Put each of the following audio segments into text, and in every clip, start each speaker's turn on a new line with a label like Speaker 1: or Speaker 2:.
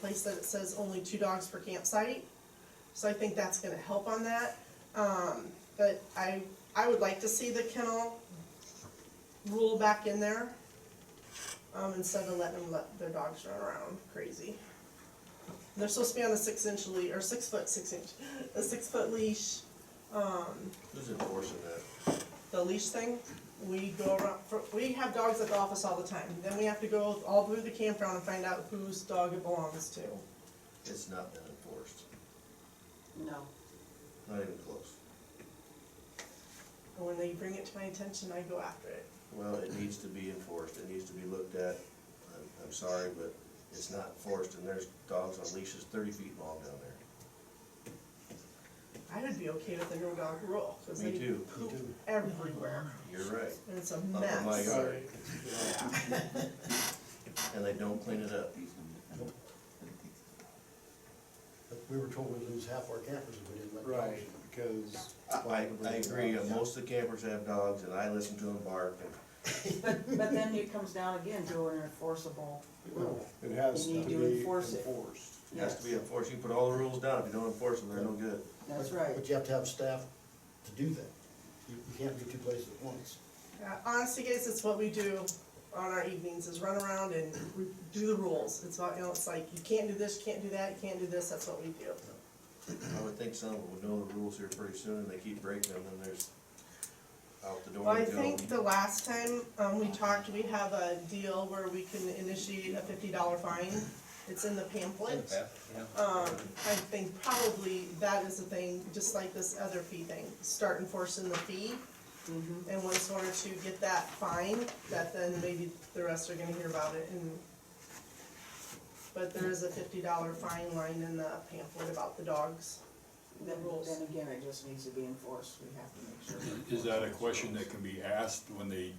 Speaker 1: place that it says only two dogs per campsite. So I think that's gonna help on that. Um, but I, I would like to see the kennel rule back in there. Um, instead of letting them let their dogs run around crazy. They're supposed to be on a six inch leash, or six foot, six inch, a six foot leash. Um,
Speaker 2: Who's enforcing that?
Speaker 1: the leash thing, we go around, for- we have dogs at the office all the time. Then we have to go all through the campground and find out whose dog it belongs to.
Speaker 2: It's not been enforced,
Speaker 3: No.
Speaker 2: not even close.
Speaker 1: And when they bring it to my attention, I go after it.
Speaker 2: Well, it needs to be enforced, it needs to be looked at. I'm, I'm sorry, but it's not enforced, and there's dogs on leashes thirty feet long down there.
Speaker 1: I would be okay with the no dog rule, because
Speaker 2: Me
Speaker 1: they
Speaker 2: too.
Speaker 1: poop everywhere,
Speaker 2: You're right,
Speaker 1: and it's a
Speaker 2: up in my
Speaker 1: mess.
Speaker 2: yard, and they don't clean it up.
Speaker 4: We were told we'd lose half our campers if we didn't let dogs.
Speaker 5: Right, because.
Speaker 2: I, I agree, uh, most of the campers have dogs, and I listen to them bark, and
Speaker 3: But, but then it comes down again to an enforceable rule.
Speaker 5: It has
Speaker 3: You
Speaker 5: to
Speaker 3: need to
Speaker 5: be
Speaker 3: enforce it.
Speaker 5: enforced.
Speaker 2: it has to be enforced. You put all the rules down, if you don't enforce them, they're no good.
Speaker 3: That's
Speaker 4: But-
Speaker 3: right.
Speaker 4: But you have to have staff to do that. You, you can't be two places at once.
Speaker 1: Yeah, Honestly, guys, it's what we do on our evenings, is run around and we do the rules. It's not, you know, it's like, you can't do this, you can't do that, you can't do this, that's what we do.
Speaker 2: I would think some would know the rules here pretty soon, and they keep breaking them, and there's out the
Speaker 1: Well,
Speaker 2: door
Speaker 1: I
Speaker 2: they go.
Speaker 1: think the last time, um, we talked, we have a deal where we can initiate a fifty dollar fine. It's in the pamphlet. Um, I think probably that is the thing, just like this other fee thing, start enforcing the fee. And once one or two get that fine, that then maybe the rest are gonna hear about it and. But there is a fifty dollar fine line in the pamphlet about the dogs.
Speaker 3: Then,
Speaker 1: rules.
Speaker 3: then again, it just needs to be enforced. We have to make sure. we
Speaker 6: Is that a
Speaker 3: enforce
Speaker 6: question
Speaker 3: those.
Speaker 6: that can be asked when they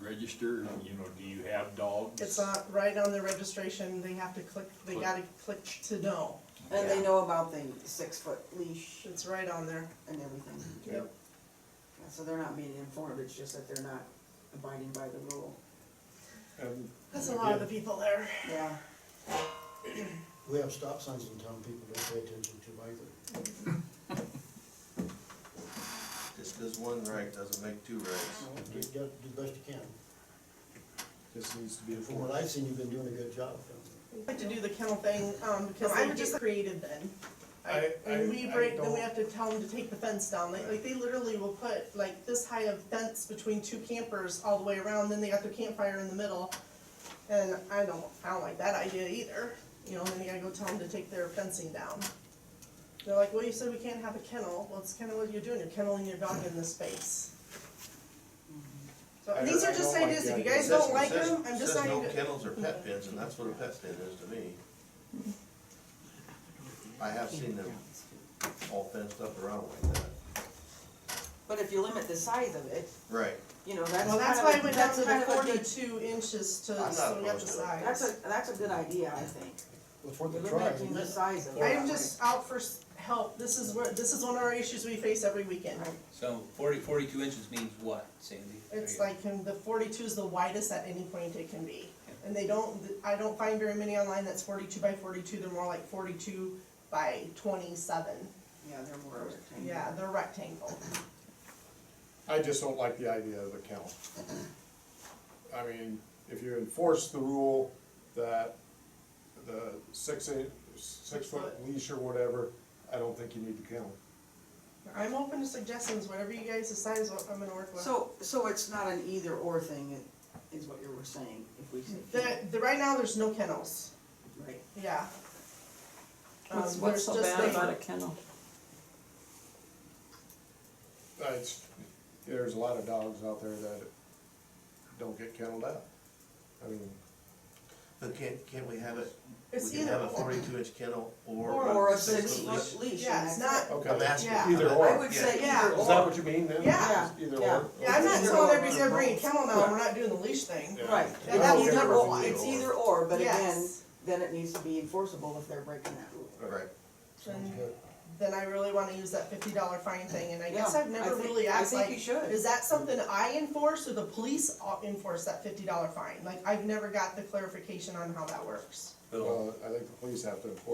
Speaker 6: register, you know, do you have dogs?
Speaker 1: It's not right on the registration, they have to click, they gotta click to know,
Speaker 3: And they know about the six-foot leash
Speaker 1: it's right on there.
Speaker 3: and everything.
Speaker 1: Yep.
Speaker 3: And So they're not being informed, it's just that they're not abiding by the rule.
Speaker 5: And
Speaker 1: That's a lot of the people there.
Speaker 3: Yeah,
Speaker 4: We have stop signs in town people don't pay attention to either.
Speaker 2: Just does one right, doesn't make two rights.
Speaker 4: You gotta do the best you can.
Speaker 5: this needs to be
Speaker 4: From what
Speaker 5: enforced.
Speaker 4: I've seen, you've been doing a good job.
Speaker 1: I like to do the kennel thing, um, because
Speaker 3: I
Speaker 1: they
Speaker 3: would
Speaker 1: get
Speaker 3: just-
Speaker 1: creative then.
Speaker 5: I-
Speaker 1: And we
Speaker 5: I- I
Speaker 1: break, then we
Speaker 5: don't-
Speaker 1: have to tell them to take the fence down, like, like they literally will put like this high of fence between two campers all the way around, then they got their campfire in the middle. And I don't, I don't like that idea either, you know, and then you gotta go tell them to take their fencing down. They're like, well, you said we can't have a kennel, well, it's kinda what you're doing, you're kenneling your dog in this space. So,
Speaker 5: I-
Speaker 1: these
Speaker 5: I
Speaker 1: are just
Speaker 5: don't like
Speaker 1: ideas, if
Speaker 5: the
Speaker 1: you
Speaker 5: idea.
Speaker 1: guys
Speaker 2: It
Speaker 1: don't
Speaker 2: says-
Speaker 1: like
Speaker 2: it says-
Speaker 1: them, I'm just not even.
Speaker 2: Says no kennels or pet pens, and that's what a pet pen is to me. I have seen them all fenced up around like that.
Speaker 3: but if you limit the size of it,
Speaker 2: Right.
Speaker 3: you know, that's
Speaker 1: Well, that's
Speaker 3: kind
Speaker 1: why
Speaker 3: of-
Speaker 1: I went down
Speaker 3: that's
Speaker 1: to the
Speaker 3: kind of a good-
Speaker 1: forty-two inches to,
Speaker 2: I'm
Speaker 1: so
Speaker 2: not
Speaker 1: we got the
Speaker 2: opposed to it.
Speaker 1: size.
Speaker 3: That's a, that's a good idea, I think.
Speaker 4: Before the trial.
Speaker 3: Limiting the size of it.
Speaker 1: I'm just out for s- help, this is where, this is one of our issues we face every weekend.
Speaker 3: Right.
Speaker 7: So 40 42 inches means what, Sandy?
Speaker 1: It's
Speaker 7: There you
Speaker 1: like, um, the forty-two is the widest at any point it can be. And they don't, I don't find very many online that's forty-two by forty-two, they're more like forty-two by twenty-seven.
Speaker 3: Yeah, they're more rectangular.
Speaker 1: Yeah, they're rectangle.
Speaker 5: I just don't like the idea of a kennel. I mean, if you enforce the rule that the six, in- six foot leash or whatever, I don't think you need the kennel.
Speaker 1: I'm open to suggestions, whatever you guys decide is what I'm gonna work with.
Speaker 3: So, so it's not an either or thing, it- is what you were saying, if we say.
Speaker 1: The, the, right now, there's no kennels,
Speaker 3: Right.
Speaker 1: yeah. Um,
Speaker 8: What's, what's
Speaker 1: there's
Speaker 8: so
Speaker 1: just
Speaker 8: bad
Speaker 1: the-
Speaker 8: about a kennel?
Speaker 5: That's, there's a lot of dogs out there that don't get kenneled out. I mean,
Speaker 2: But can't, can't we have it, we
Speaker 1: It's
Speaker 2: can have
Speaker 1: either
Speaker 2: a
Speaker 1: or.
Speaker 2: forty-two inch kennel
Speaker 1: Or-
Speaker 2: or.
Speaker 3: Or a
Speaker 2: six-foot
Speaker 3: six foot leash.
Speaker 1: Yeah,
Speaker 3: and
Speaker 1: it's
Speaker 3: that's
Speaker 1: not,
Speaker 5: okay,
Speaker 2: I'm asking.
Speaker 1: Yeah.
Speaker 5: either
Speaker 2: I'm-
Speaker 3: it. I
Speaker 5: or.
Speaker 3: would
Speaker 2: Yeah.
Speaker 3: say
Speaker 1: Yeah.
Speaker 3: either
Speaker 5: Is that
Speaker 3: or,
Speaker 5: what you mean then?
Speaker 1: Yeah.
Speaker 5: Either
Speaker 3: Yeah.
Speaker 5: or?
Speaker 1: Yeah, I'm not
Speaker 3: Either
Speaker 1: telling
Speaker 3: or.
Speaker 1: everybody's gonna bring a kennel now, we're not doing the leash thing.
Speaker 5: Yeah.
Speaker 3: right,
Speaker 5: Yeah.
Speaker 3: that's
Speaker 5: Okay.
Speaker 3: either or,
Speaker 2: Either
Speaker 3: it's
Speaker 2: or.
Speaker 3: either or, but again,
Speaker 1: Yes.
Speaker 3: then it needs to be enforceable if they're breaking that rule.
Speaker 2: Right.
Speaker 4: Sounds good.
Speaker 1: Then I really wanna use that fifty dollar fine thing, and I
Speaker 3: Yeah,
Speaker 1: guess I've
Speaker 3: I
Speaker 1: never
Speaker 3: think-
Speaker 1: really
Speaker 3: I
Speaker 1: asked,
Speaker 3: think
Speaker 1: like,
Speaker 3: you should.
Speaker 1: is that something I enforce, or the police o- enforce that fifty dollar fine? Like, I've never got the clarification on how that works.
Speaker 7: But all-
Speaker 5: Well, I think the police have to enforce